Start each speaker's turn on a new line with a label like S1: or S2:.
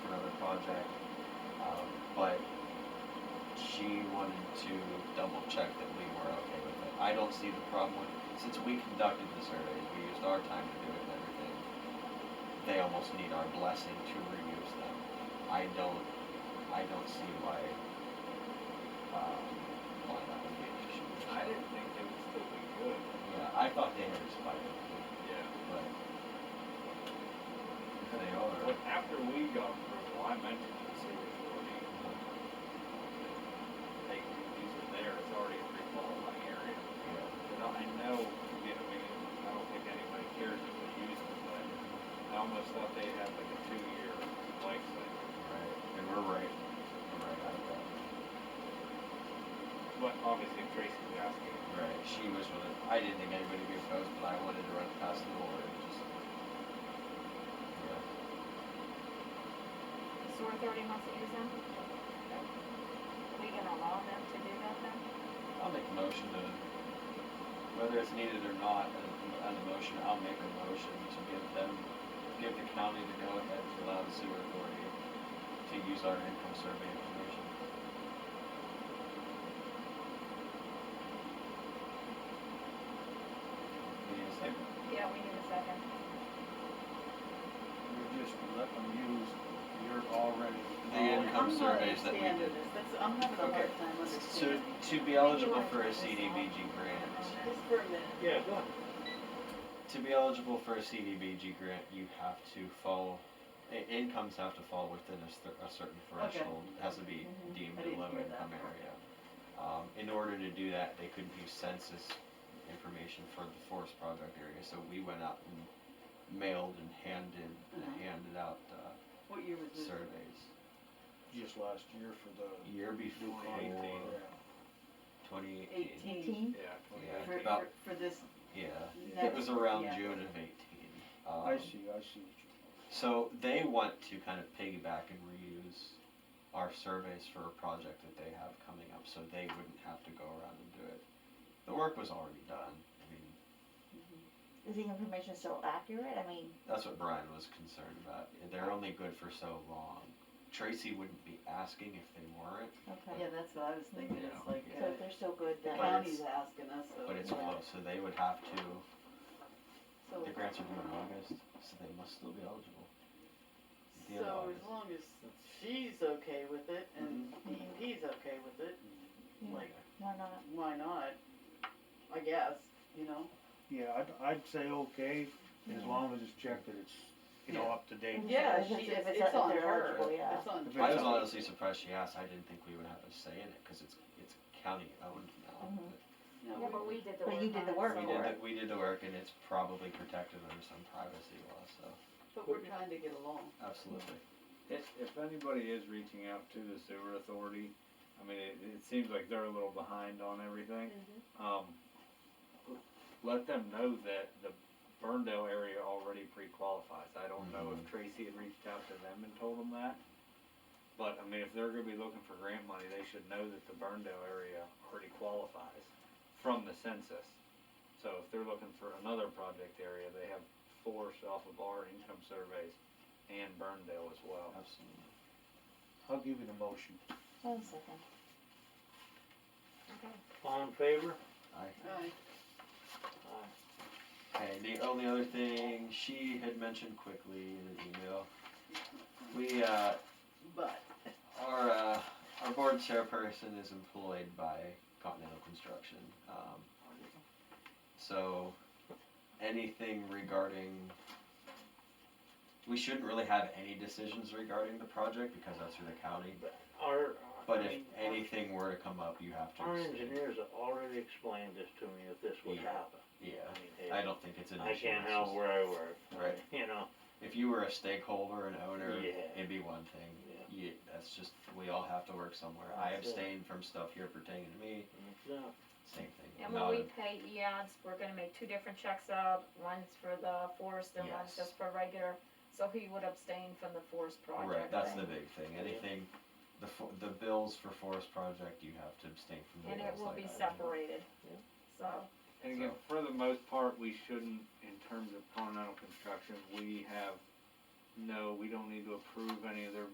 S1: um, wanted to double check that we were okay with it. I don't see the problem with, since we conducted the surveys, we used our time to do it and everything. They almost need our blessing to reuse them. I don't, I don't see why, um, why that would be an issue.
S2: I didn't think they would still be good.
S1: Yeah, I thought they had expired,
S2: Yeah.
S1: but if they are.
S2: But after we got approval, I mentioned to the sewer authority, they, these are there, it's already a pre-qualifying area.
S1: yeah,
S2: But I know, you know, I mean, I don't think anybody cares if they use it, but I almost thought they had like a two-year life cycle.
S1: Right, and we're right, we're right out of that.
S2: But obviously if Tracy's asking,
S1: Right, she was with it. I didn't think anybody would be opposed, but I wanted to run it past the board and just. Yeah.
S3: The sewer authority wants to use them? We gonna allow them to do that then?
S1: I'll make a motion to, whether it's needed or not, as as a motion, I'll make a motion to give them, give the county to go ahead and allow the sewer authority to use our income survey information. Give me a second.
S3: Yeah, we need a second.
S4: You're just letting them use your already.
S1: The income surveys that we
S5: I'm not
S1: did.
S5: understanding this, that's, I'm having a
S1: Okay.
S5: hard time
S1: So
S5: understanding.
S1: to be eligible for a CDBG grant,
S5: Just for a minute.
S2: yeah, go ahead.
S1: to be eligible for a CDBG grant, you have to fall, i- incomes have to fall within a cer- a certain
S5: Okay.
S1: threshold. It has to be
S5: Mhm.
S1: deemed
S5: I
S1: a
S5: didn't
S1: low
S5: hear that.
S1: income area. Um, in order to do that, they couldn't use census information for the forest project area, so we went out and mailed and handed,
S5: Mhm.
S1: handed out, uh,
S5: What year was this?
S1: surveys.
S4: Just last year for the.
S1: Year before,
S2: Eighteen.
S1: twenty eighteen,
S5: Eighteen?
S2: Yeah.
S1: Yeah.
S5: For, for,
S1: about-
S5: for this
S1: yeah. It
S5: next?
S1: was around
S5: yeah.
S1: June of eighteen. Um,
S4: I see, I see what you mean.
S1: So they want to kind of piggyback and reuse our surveys for a project that they have coming up, so they wouldn't have to go around and do it. The work was already done. I mean,
S6: Mm-hmm. Is the information still accurate? I mean,
S1: that's what Brian was concerned about. They're only good for so long. Tracy wouldn't be asking if they weren't,
S6: okay,
S5: Yeah, that's what I was thinking,
S2: Yeah.
S5: it's like,
S6: so if
S5: uh,
S6: they're still good
S5: the
S6: then.
S1: But
S5: county's
S1: it's-
S5: asking us, so.
S1: but it's
S6: Oh, Yeah. Oh.
S1: close, so they would have to.
S5: so-
S1: The grants are due in August, so they must still be eligible. the end of
S7: So
S1: August.
S7: as long as she's okay with it and
S1: Mm-hmm.
S7: he's okay with it,
S6: Yeah.
S7: like,
S6: Why not?
S7: why not? I guess, you know?
S4: Yeah, I'd, I'd say okay, as long as it's checked that it's, you know,
S7: Yeah.
S4: up to date.
S7: Yeah,
S6: If
S7: she,
S6: it's-
S7: it's,
S6: if it's-
S7: it's
S6: if
S7: on
S6: they're
S7: her.
S6: eligible, yeah.
S7: It's on
S4: If
S7: her.
S1: I was
S4: Something.
S1: honestly surprised she asked. I didn't think we would have a say in it because it's it's county owned now.
S6: Mhm.
S7: No,
S3: Yeah, but we did the work.
S6: But you did
S3: on
S6: the
S3: it,
S6: work
S1: We
S3: so-
S6: for
S1: did,
S6: it.
S1: the, we did the work and it's probably protected under some privacy law, so,
S7: But we're trying to get along.
S1: absolutely.
S2: If, if anybody is reaching out to the sewer authority, I mean, it, it seems like they're a little behind on
S3: Mm-hmm.
S2: everything. Um, let them know that the Burndale area already pre-qualifies. I don't know
S8: Mm-hmm.
S2: if Tracy had reached out to them and told them that. But I mean, if they're gonna be looking for grant money, they should know that the Burndale area already qualifies from the census. So if they're looking for another project area, they have forced off of our income surveys and Burndale as well.
S1: Absolutely.
S4: I'll give you the motion.
S6: One second.
S3: Okay.
S8: All in favor?
S1: Aye.
S7: Right.
S1: Okay, the only other thing she had mentioned quickly in an email, we, uh,
S7: But,
S1: our, uh, our board chairperson is employed by Continental Construction. Um, so anything regarding, we shouldn't really have any decisions regarding the project because that's through the county.
S8: Our, I
S1: But if
S8: mean,
S1: anything were to come up, you have to
S8: our
S1: abstain.
S8: engineers have already explained this to me, if this would
S1: Yeah.
S8: happen.
S1: Yeah,
S8: I mean, hey,
S1: I don't think it's an
S8: I
S1: issue.
S8: can't
S1: it's
S8: help
S1: just-
S8: where I work.
S1: Right.
S8: You know,
S1: If you were a stakeholder, an owner,
S8: Yeah.
S1: it'd be one thing.
S8: Yeah.
S1: Yeah, that's just, we all have to work somewhere. I
S8: That's it.
S1: abstain from stuff here pertaining to me,
S8: so,
S1: same thing.
S3: And
S1: Not
S3: when we
S1: a-
S3: pay E EADS, we're gonna make two different checks up, one's for the forest and
S1: Yes.
S3: one's just for regular, so he would abstain from the forest project.
S1: Right, that's
S3: thing.
S1: the big thing. Anything, the, fo- the bills for forest project, you have to abstain from the
S3: And it
S1: bills
S3: will
S1: like
S3: be
S1: item.
S3: separated,
S8: Yeah.
S3: so,
S2: And again, for the most part, we shouldn't, in terms of continental construction, we have, no, we don't need to approve any of their